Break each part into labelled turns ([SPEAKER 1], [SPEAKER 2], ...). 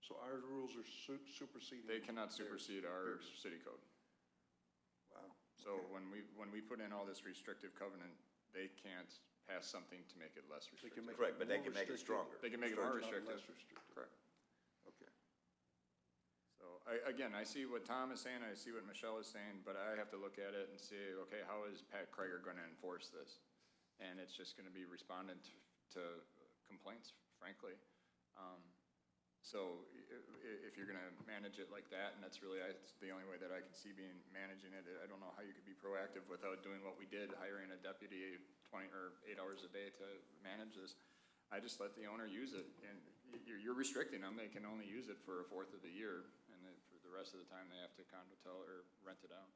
[SPEAKER 1] So our rules are su- superseding.
[SPEAKER 2] They cannot
[SPEAKER 1] theirs.
[SPEAKER 2] supersede our
[SPEAKER 1] Theirs.
[SPEAKER 2] city code.
[SPEAKER 1] Wow.
[SPEAKER 2] So
[SPEAKER 1] Okay.
[SPEAKER 2] when we, when we put in all this restrictive covenant, they can't pass something to make it less
[SPEAKER 1] They can
[SPEAKER 2] restrictive.
[SPEAKER 1] make it
[SPEAKER 3] Correct, but they
[SPEAKER 1] more
[SPEAKER 3] can make it
[SPEAKER 1] restrictive.
[SPEAKER 3] stronger.
[SPEAKER 2] They can make it more
[SPEAKER 1] Not
[SPEAKER 2] restrictive.
[SPEAKER 1] Less restrictive.
[SPEAKER 2] Correct.
[SPEAKER 1] Okay.
[SPEAKER 2] So I, again, I see what Tom is saying, I see what Michelle is saying, but I have to look at it and see, okay, how is Pat Krager going to enforce this? And it's just going to be respondent to complaints, frankly. Um, So i- i- if you're going to manage it like that, and that's really, that's the only way that I can see being, managing it, I don't know how you could be proactive without doing what we did, hiring a deputy twenty, or eight hours a day to manage this. I just let the owner use it, and y- you're, you're restricting them, they can only use it for a fourth of the year, and then for the rest of the time, they have to condo tell or rent it out.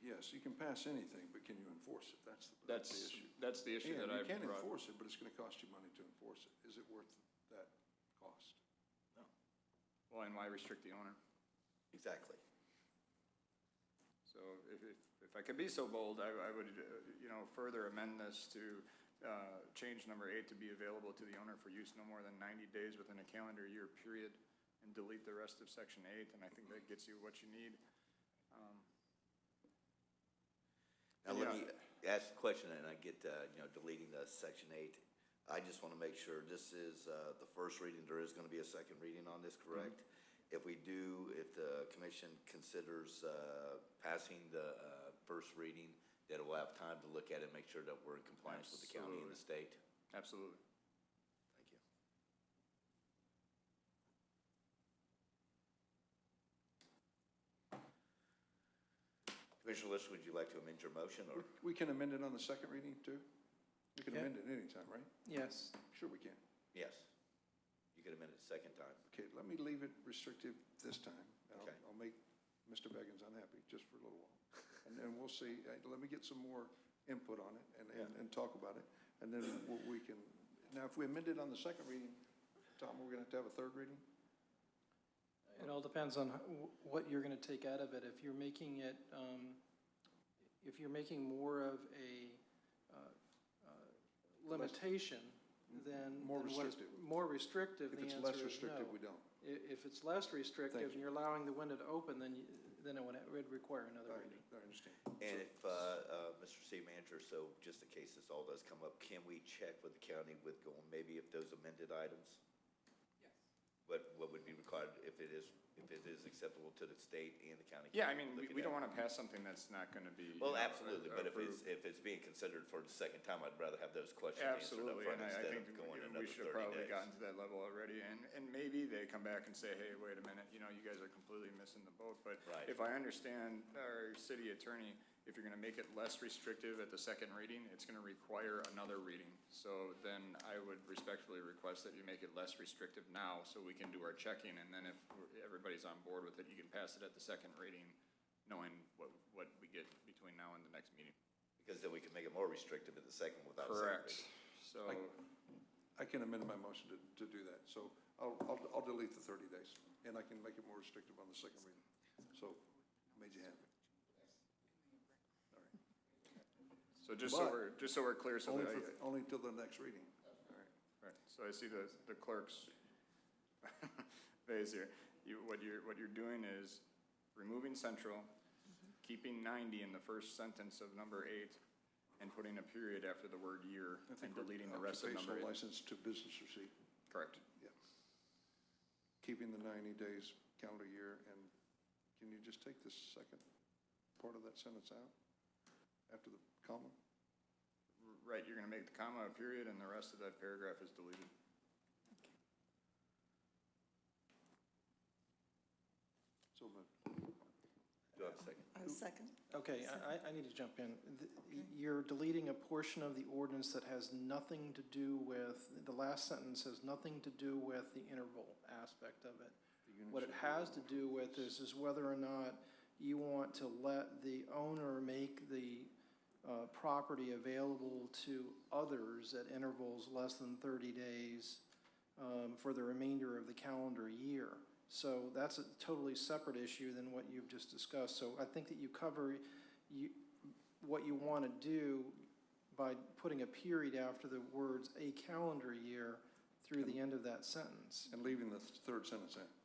[SPEAKER 1] Yes, you can pass anything, but can you enforce it? That's, the- that's the
[SPEAKER 2] That's,
[SPEAKER 1] issue.
[SPEAKER 2] that's the issue that
[SPEAKER 1] And
[SPEAKER 2] I
[SPEAKER 1] you can
[SPEAKER 2] brought.
[SPEAKER 1] enforce it, but it's going to cost you money to enforce it. Is it worth that cost?
[SPEAKER 2] Well, and why restrict the owner?
[SPEAKER 3] Exactly.
[SPEAKER 2] So if, if, if I could be so bold, I, I would, uh, you know, further amend this to, uh, change number eight to be available to the owner for use no more than ninety days within a calendar year period, and delete the rest of section eight, and I think that gets you what you need. Um,
[SPEAKER 3] Now, let
[SPEAKER 2] Yeah.
[SPEAKER 3] me ask a question, and I get, uh, you know, deleting the section eight. I just want to make sure, this is uh, the first reading, there is going to be a second reading on this,
[SPEAKER 2] Mm-hmm.
[SPEAKER 3] correct? If we do, if the commission considers uh, passing the uh, first reading, that it will have time to look at it, and make sure that we're in compliance with the county and the state?
[SPEAKER 2] Absolutely.
[SPEAKER 3] Thank you. Commissioner List, would you like to amend your motion, or?
[SPEAKER 1] We can amend it on the second reading too? We can
[SPEAKER 4] Yeah.
[SPEAKER 1] amend it anytime, right?
[SPEAKER 4] Yes.
[SPEAKER 1] Sure we can.
[SPEAKER 2] Mm-hmm.
[SPEAKER 3] Yes. You can amend it a second time.
[SPEAKER 1] Okay, let me leave it restrictive this time. and I'll-
[SPEAKER 3] Okay.
[SPEAKER 1] I'll make Mr. Beggins unhappy just for a little while. And then we'll see, Uh, let me get some more input on it and, and,
[SPEAKER 3] Yeah.
[SPEAKER 1] and talk about it. And then we- we can, now if we amend it on the second reading, Tom, we're gonna have to have a third reading?
[SPEAKER 4] It all depends on wh- what you're going to take out of it. If you're making it, um, if you're making more of a uh, uh, limitation, then.
[SPEAKER 1] More
[SPEAKER 4] then what is-
[SPEAKER 1] restrictive.
[SPEAKER 4] More restrictive,
[SPEAKER 1] If
[SPEAKER 4] the
[SPEAKER 1] it's
[SPEAKER 4] answer
[SPEAKER 1] less
[SPEAKER 4] is
[SPEAKER 1] restrictive,
[SPEAKER 4] no.
[SPEAKER 1] we don't.
[SPEAKER 4] I- If it's less restrictive
[SPEAKER 1] Thank
[SPEAKER 4] and you're allowing the window to open, then, you- then it would it would require another
[SPEAKER 1] I,
[SPEAKER 4] reading.
[SPEAKER 1] I understand.
[SPEAKER 3] And if, uh, uh, Mr. City Manager, so just in case this all does come up, can we check with the county with going, maybe if those amended items?
[SPEAKER 5] Yes.
[SPEAKER 3] What, what would be required if it is, if it is acceptable to the state and the county?
[SPEAKER 2] Yeah, I mean, we,
[SPEAKER 3] Looking
[SPEAKER 2] we don't
[SPEAKER 3] at-
[SPEAKER 2] want to pass something that's not going to be. you
[SPEAKER 3] Well,
[SPEAKER 2] know,
[SPEAKER 3] absolutely, but if it's,
[SPEAKER 2] approved.
[SPEAKER 3] if it's being considered for the second time, I'd rather have those questions answered up
[SPEAKER 2] Absolutely,
[SPEAKER 3] front
[SPEAKER 2] and I I
[SPEAKER 3] instead of
[SPEAKER 2] think
[SPEAKER 3] going
[SPEAKER 2] we-
[SPEAKER 3] another
[SPEAKER 2] we should have
[SPEAKER 3] thirty
[SPEAKER 2] probably gotten
[SPEAKER 3] days.
[SPEAKER 2] to that level already, and, and maybe they come back and say, hey, wait a minute, you know, you guys are completely missing the boat, but
[SPEAKER 3] Right.
[SPEAKER 2] if I understand our city attorney, if you're gonna make it less restrictive at the second reading, it's gonna require another reading. So then I would respectfully request that you make it less restrictive now, so we can do our checking, and then if we're- everybody's on board with it, you can pass it at the second reading, knowing what, what we get between now and the next meeting.
[SPEAKER 3] Because then we can make it more restrictive in the second without. second
[SPEAKER 2] Correct,
[SPEAKER 3] reading.
[SPEAKER 2] so.
[SPEAKER 1] I can amend my motion to, to do that, so I'll, I'll, I'll delete the thirty days, and I can make it more restrictive on the second reading. So, made you happy.
[SPEAKER 2] So just so
[SPEAKER 1] But-
[SPEAKER 2] we're, just so we're clear, so
[SPEAKER 1] Only,
[SPEAKER 2] that
[SPEAKER 1] for- only until the next reading. All right.
[SPEAKER 2] I, right, so I see the, the clerk's phase here. You, what you're, what you're doing is removing central,
[SPEAKER 1] Mm-hmm.
[SPEAKER 2] keeping ninety in the first sentence of number eight, and putting a period after the word year
[SPEAKER 1] I think
[SPEAKER 2] and
[SPEAKER 1] we're-
[SPEAKER 2] deleting the rest of number
[SPEAKER 1] Occupational
[SPEAKER 2] eight.
[SPEAKER 1] license to business receipt,
[SPEAKER 2] Correct.
[SPEAKER 1] yeah. Keeping the 90 days calendar year, and can you just take the second part of that sentence out after the comma?
[SPEAKER 2] Right, you're gonna make the comma a period, and the rest of that paragraph is deleted.
[SPEAKER 1] So moved.
[SPEAKER 3] Do I have a second?
[SPEAKER 5] A second?
[SPEAKER 4] Okay, I, I- I need to jump in. The- You're deleting a portion of the ordinance that has nothing to do with, the last sentence has nothing to do with the interval aspect of it. What it has to do with is, is whether or not you want to let the owner make the uh, property available to others at intervals less than 30 days um, for the remainder of the calendar year. So that's a totally separate issue than what you've just discussed. So I think that you cover you, what you want to do by putting a period after the words "a calendar year" through the end of that sentence.
[SPEAKER 1] And leaving the third sentence in.